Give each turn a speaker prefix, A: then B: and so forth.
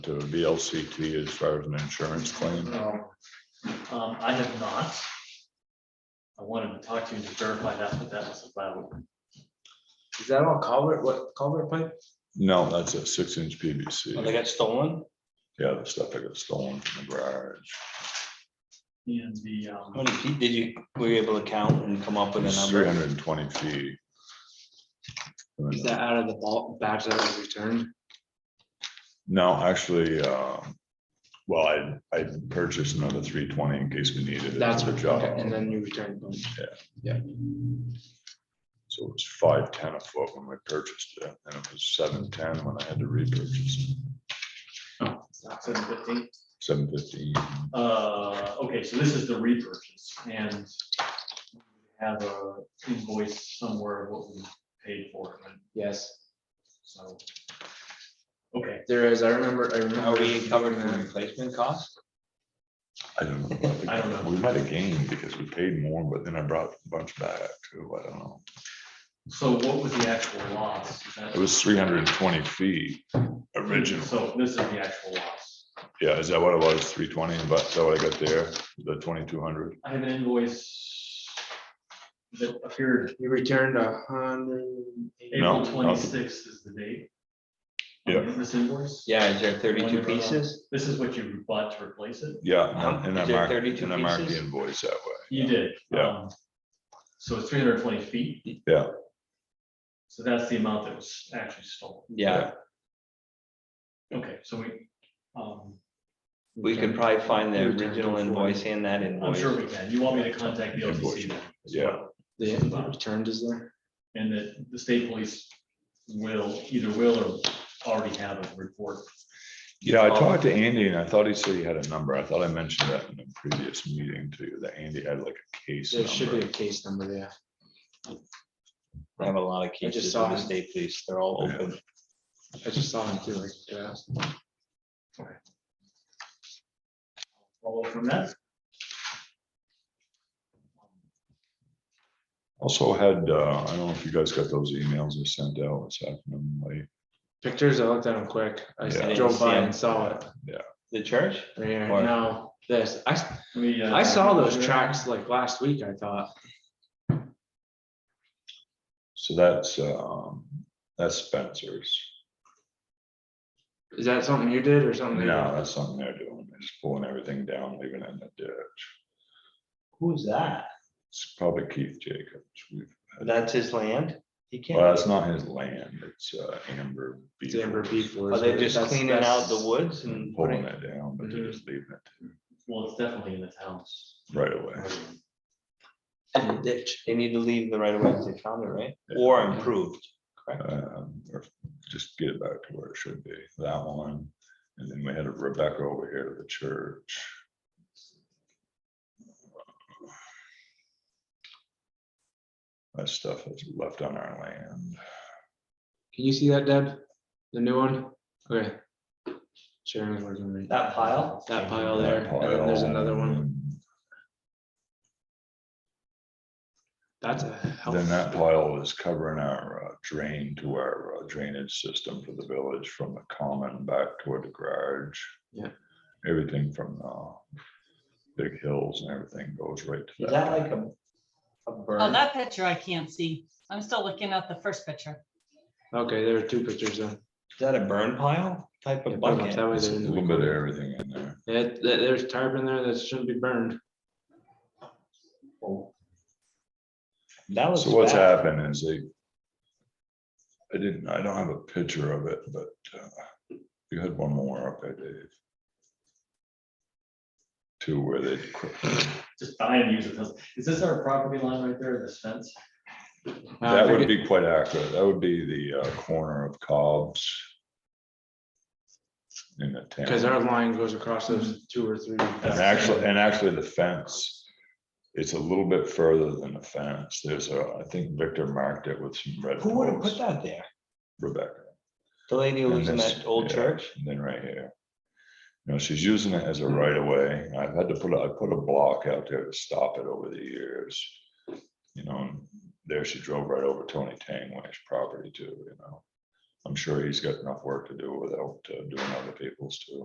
A: to VLCT as far as an insurance claim?
B: No, um, I have not. I wanted to talk to you to verify that, but that was about.
C: Is that all culvert, what culvert pipe?
A: No, that's a six inch
C: Oh, they
A: PVC.
C: got stolen?
A: Yeah, the stuff that got stolen from the garage.
B: And the, um,
C: How many feet did you, were you able to count and come up with a
A: It's three
C: number?
A: hundred and twenty feet.
D: Is that out of the ball, batch that was returned?
A: No, actually, uh, well, I, I purchased another three twenty in case we needed it.
D: That's
A: for
D: what,
A: the
D: okay, and
A: job.
D: then you returned them.
A: So it was five ten a foot when we purchased it, and it was seven ten when I had to repurchase,
B: seven fifteen,
A: seven fifteen.
B: uh, okay, so this is the repurchase and. we Have a invoice somewhere of what we paid for it, right?
D: Yes,
B: so. Okay,
D: there is. I remember, I remember.
C: Are we covered in the replacement cost?
A: I don't know.
B: I don't know.
A: We might have gained because we paid more, but then I brought a bunch back too, I don't know.
B: so what was the actual loss? Is that-
A: It was three hundred and twenty feet original.
B: So this is the actual loss.
A: Yeah, is that what it was? Three twenty, but is that what I got there, the twenty-two hundred?
B: I have an invoice that appeared
D: You returned a hundred. and eighty.
A: No, no.
B: April twenty-sixth is the date. on
A: Yeah.
B: This invoice,
C: Yeah, is there thirty-two pieces?
B: this is what you bought to replace it?
A: Yeah, and I- and I
C: Is there
A: marked,
C: 32
A: and I marked the
C: pieces?
A: invoice that way.
B: You did.
A: Yeah.
B: um, So it's three hundred and twenty feet?
A: Yeah.
B: So that's the amount that was actually stolen.
C: Yeah,
B: Okay, so we, um,
C: we could probably find the original invoice and that
B: I'm
C: invoice.
B: sure we can. You want me to contact the LCC then? as
A: Yeah.
B: well?
D: The the returned is there?
B: And that the state police will, either will or already have a report.
A: Yeah, I
D: Oh.
A: talked to Andy and I thought he said he had a number. I thought I mentioned that in a previous meeting too, that Andy had like a case
D: There should be a
A: number.
D: case number there.
C: I have a lot of
D: just
C: cases
D: saw
C: of the
D: it.
C: state police. They're all
A: Yeah.
C: open.
D: I just saw him too, like, yeah.
B: Follow from that?
A: Also had, uh, I don't know if you guys got those emails I sent out this afternoon, like,
D: Pictures, I looked at them quick. I
A: Yeah.
D: drove by and saw it.
C: The church?
D: Right here.
C: Or-
D: Now, this, I, s-
B: We, uh,
D: I saw those tracks like last week, I thought.
A: so that's, um, that's Spencer's.
D: Is that something you did or something? they
A: No,
D: did?
A: that's something they're doing, They're just pulling everything down, leaving it in the ditch.
C: Who's that?
A: It's probably Keith Jacobs. We've
C: That's his land? He
A: Well,
C: can't,
A: that's not his land, it's uh, Amber.
D: It's Amber
A: Beaver
D: Beef.
C: are they just
D: That's-
C: cleaning out the
D: that's-
C: woods and
A: Pulling
C: putting?
A: it down, but they're
D: Mhm.
A: just leaving it
B: Well, it's definitely in the town's.
A: right away.
C: And the ditch, they need to leave the right of way if they found it, right? Or improved.
A: Um, Or just get it back to where it should be, that one, and then we had a Rebecca over here to the church. That stuff is left on our land.
D: Can you see that, Deb? The new one? Okay. Sharon's working on it.
C: That pile?
D: That pile
A: That
D: there, and then there's another one. That's a
A: pile,
D: hell.
A: Then that pile was covering our uh, drain to our uh, drainage system for the village from the common back toward the garage.
D: Yeah.
A: Everything from the big hills and everything goes right to
C: Is
A: that.
C: that like a, a
E: On
C: burn?
E: Oh, that picture, I can't see. I'm still looking at the first picture.
D: Okay, there are two pictures then.
C: Is that a burn pile type
D: Yeah,
C: of
D: put 'em up
C: bucket?
D: That way
A: It's A
D: they're in
A: little
D: the.
A: bit of everything in there.
D: Yeah, th- there's tarp in there that shouldn't be burned.
C: Oh. That was.
A: So what's
C: bad.
A: happened is they. I didn't, I don't have a picture of it, but uh, you had one more up there, Dave. To where they,
B: Just buy and use it. Is this our property line right there, this fence?
D: Uh,
A: that
D: I
A: would
D: think
A: be quite accurate. That would be the uh, corner of Cobb's. In the
D: it-
A: town.
D: Cause our line goes across those two or three.
A: And actually, and actually the fence, it's a little bit further than the fence. There's a, I think Victor marked it with some red.
C: Who would have
A: posts.
C: put that there?
A: Rebecca.
C: The lady who
A: And
C: lives in
A: this-
C: that old
A: yeah,
C: church?
A: And then right here. You know, she's using it as a right of way. I've had to put, a- I put a block out there to stop it over the years. You know, and there she drove right over Tony Tangway's property too, you know. I'm sure he's got enough work to do without uh, doing other people's too.